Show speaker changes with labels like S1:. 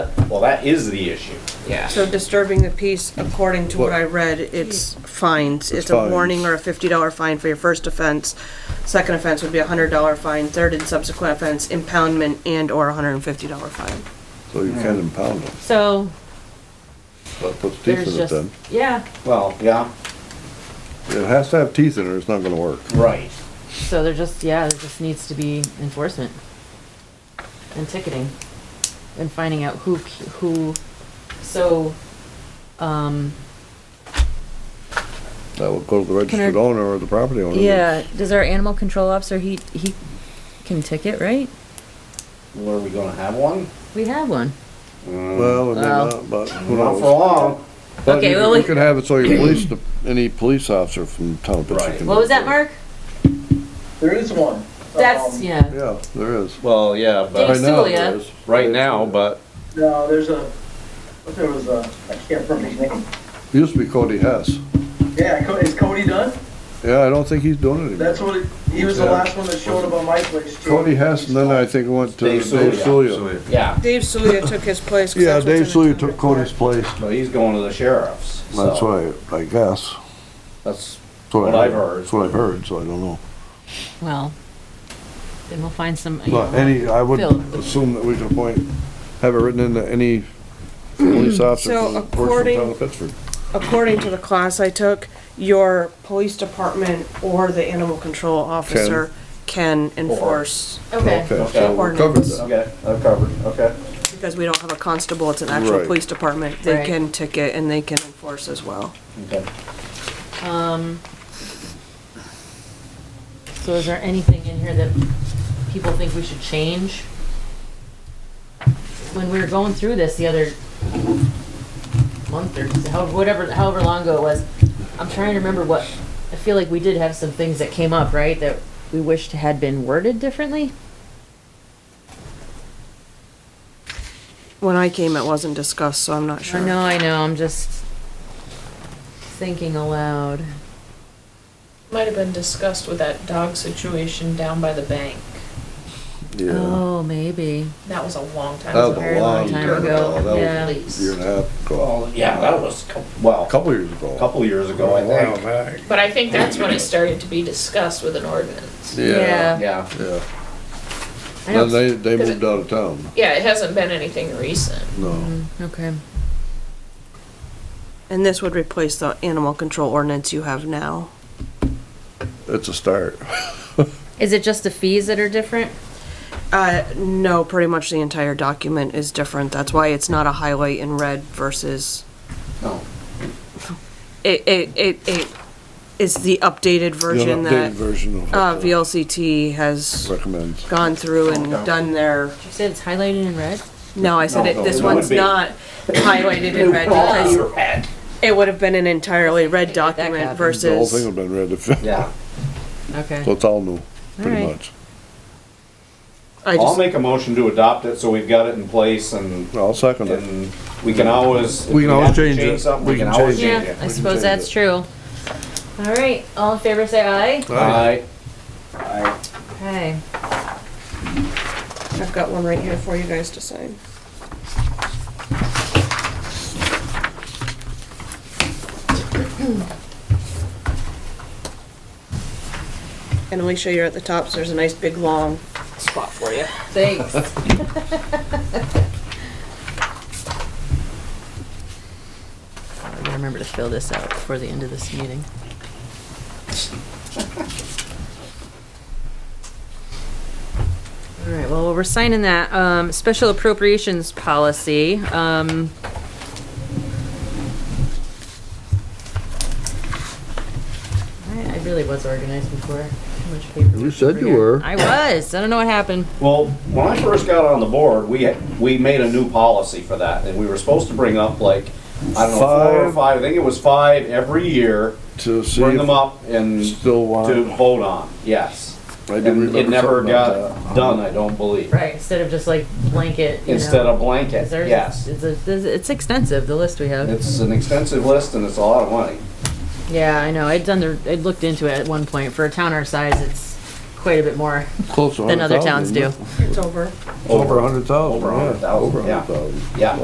S1: That is the issue.
S2: yeah.
S3: So disturbing the peace, according to what I read, it's fines. It's a
S4: fines.
S3: warning or a fifty dollar fine for your first offense. Second offense would be a hundred dollar fine, third and subsequent offense impoundment and or a hundred and fifty dollar fine.
S4: So you can impound them.
S5: So
S4: That puts teeth
S5: there's
S4: in it
S5: just,
S4: then.
S5: yeah,
S1: Well, yeah,
S4: It has to have teeth in it or it's not gonna work.
S1: right.
S5: so there just, yeah, there just needs to be enforcement and ticketing and finding out who, c- who, so, um,
S4: That would go to the
S6: I-
S4: registered owner or the property owner.
S6: Yeah, does our animal control officer, he, he can ticket, right?
S1: Were we gonna have one?
S5: we have one.
S4: Well, it may
S5: Well.
S4: not, but who
S1: Not for
S4: knows?
S1: long.
S4: But
S6: Okay,
S4: you
S6: well,
S4: could- you
S6: we-
S4: could have it so you police, the- any police officer from town of
S1: Right.
S4: Pittston.
S5: What was that, Mark?
S7: There is one.
S5: That's,
S7: Um,
S5: yeah.
S4: Yeah, there is.
S1: Well, yeah,
S5: but-
S4: Right now
S5: Stulia.
S4: there is.
S1: right now, but
S7: No, there's a, what there was a, I can't remember his name.
S4: It Used to be Cody Hess.
S7: Yeah, Co- is Cody done?
S4: Yeah, I don't think he's doing it
S7: That's
S4: anymore.
S7: what, it- he was the
S4: Yeah.
S7: last one that showed up on my place too.
S4: Cody Hess, and then I think it went to Dave
S1: Dave
S4: Sulia.
S1: yeah,
S3: Dave Sulia took his place. 'cause
S4: Yeah,
S3: that's what's
S4: Dave
S3: in the
S4: Sulia
S3: town
S4: took
S3: report.
S4: Cody's place.
S1: but he's going to the sheriff's. so
S4: That's right, I guess.
S1: That's
S4: That's what
S1: What
S4: I
S1: I've
S4: heard.
S1: heard.
S4: That's what I've heard, so I don't know.
S5: Well, then we'll find some. you
S4: But
S5: know,
S4: any, I would
S5: Phil.
S4: assume that we could appoint, have it written into any police officer
S3: So
S4: from works for the
S3: according-
S4: town of Pittsford.
S3: According to the class I took, your police department or the animal control officer can enforce,
S5: Okay.
S4: Okay, so we're covered
S3: Ordinance.
S4: then.
S1: okay. I've covered. Okay.
S3: because we don't have a constable, it's an actual
S4: Right.
S3: police department. They
S5: Right.
S3: can ticket and they can enforce as well.
S1: Okay.
S5: Um, so is there anything in here that people think we should change? When we were going through this the other month or so, however, whatever, however long ago it was, I'm trying to remember what, I feel like we did have some things that came up, right, that we wished had been worded differently?
S3: When I came, it wasn't discussed, so I'm not sure.
S5: I know, I know, I'm just thinking aloud.
S8: Might have been discussed with that dog situation down by the bank.
S4: Yeah,
S5: Oh, maybe.
S8: That was a long time
S4: That was
S8: ago.
S4: a
S5: Very long
S4: long
S5: time
S4: time
S5: ago,
S4: ago, that was-
S5: yeah.
S4: year
S8: Please.
S4: and a half, ago.
S1: Well, yeah, that was cou- well,
S4: a couple Oh, years
S1: a
S4: ago.
S1: couple years ago, I think.
S8: But I think that's when it started to be discussed with an ordinance.
S4: Yeah,
S1: Yeah.
S4: yeah.
S5: I know
S4: Then they, they
S8: Cause
S4: moved
S8: it-
S4: out of town,
S8: Yeah, it hasn't been anything recent.
S4: no.
S5: Mm, Okay.
S3: And this would replace the animal control ordinance you have now.
S4: It's a start.
S5: Is it just the fees that are different?
S3: Uh, no, pretty much the entire document is different. That's why it's not a highlight in red versus,
S1: No.
S3: it, it, it, it is the updated version
S4: An updated
S3: that,
S4: version of
S3: uh,
S4: what the
S3: VLCT has
S4: recommends.
S3: gone through and done their,
S5: You said it's highlighted in red?
S3: no, I said
S1: No,
S3: it,
S1: no,
S3: this
S1: it would
S3: one's
S1: be.
S3: not highlighted in red because it would have been an entirely red document
S5: happened.
S4: The whole thing
S3: versus,
S4: would've been read if,
S1: Yeah.
S5: Okay.
S4: so it's all new, pretty
S5: Alright.
S4: much.
S3: I
S1: I'll
S3: just,
S1: make a motion to adopt it so we've got it in place and
S4: I'll second it.
S1: and we can always. if
S4: We can always
S1: have to
S4: change it.
S1: something,
S4: We
S1: We can
S4: can
S1: always change
S4: change
S5: Yeah,
S1: it.
S5: I
S4: can
S5: suppose
S4: change
S5: that's
S4: it.
S5: true. All right, all in favor, say aye.
S1: Aye.
S5: Okay.
S3: I've got one right here for you guys to sign. And Alicia, you're at the top, so there's a nice big long spot for you.
S5: Thanks. I gotta remember to fill this out before the end of this meeting. All right, well, we're signing that, um, special appropriations policy, um. I, I really was organized before, too much paper.
S4: You said you were.
S5: I was, I don't know what happened.
S1: Well, when I first got on the board, we, had- we made a new policy for that, and we were supposed to bring up like, I don't know, four or
S4: Five.
S1: five, I think it was five every year,
S4: To see
S1: bring them
S4: if
S1: up and
S4: still
S1: to
S4: want.
S1: vote on, yes.
S4: I do
S1: And it
S4: remember
S1: never
S4: something about
S1: got done, I don't believe,
S5: Right, instead of just like blanket, you
S1: instead
S5: know.
S1: of blanket,
S5: 'Cause there's-
S1: yes.
S5: It's, a- there's- it's extensive, the list we have.
S1: It's an extensive list and it's a lot of money.
S5: Yeah, I know, I'd done the, I'd looked into it at one point, for a town our size, it's quite a bit more
S4: Close to
S5: than other
S4: 100,000,
S5: towns do.
S4: isn't it?
S3: It's over.
S4: Over a hundred thousand,
S1: Over a hundred
S4: yeah,
S1: thousand,
S4: over a
S1: yeah.
S4: hundred thousand.
S1: Yeah.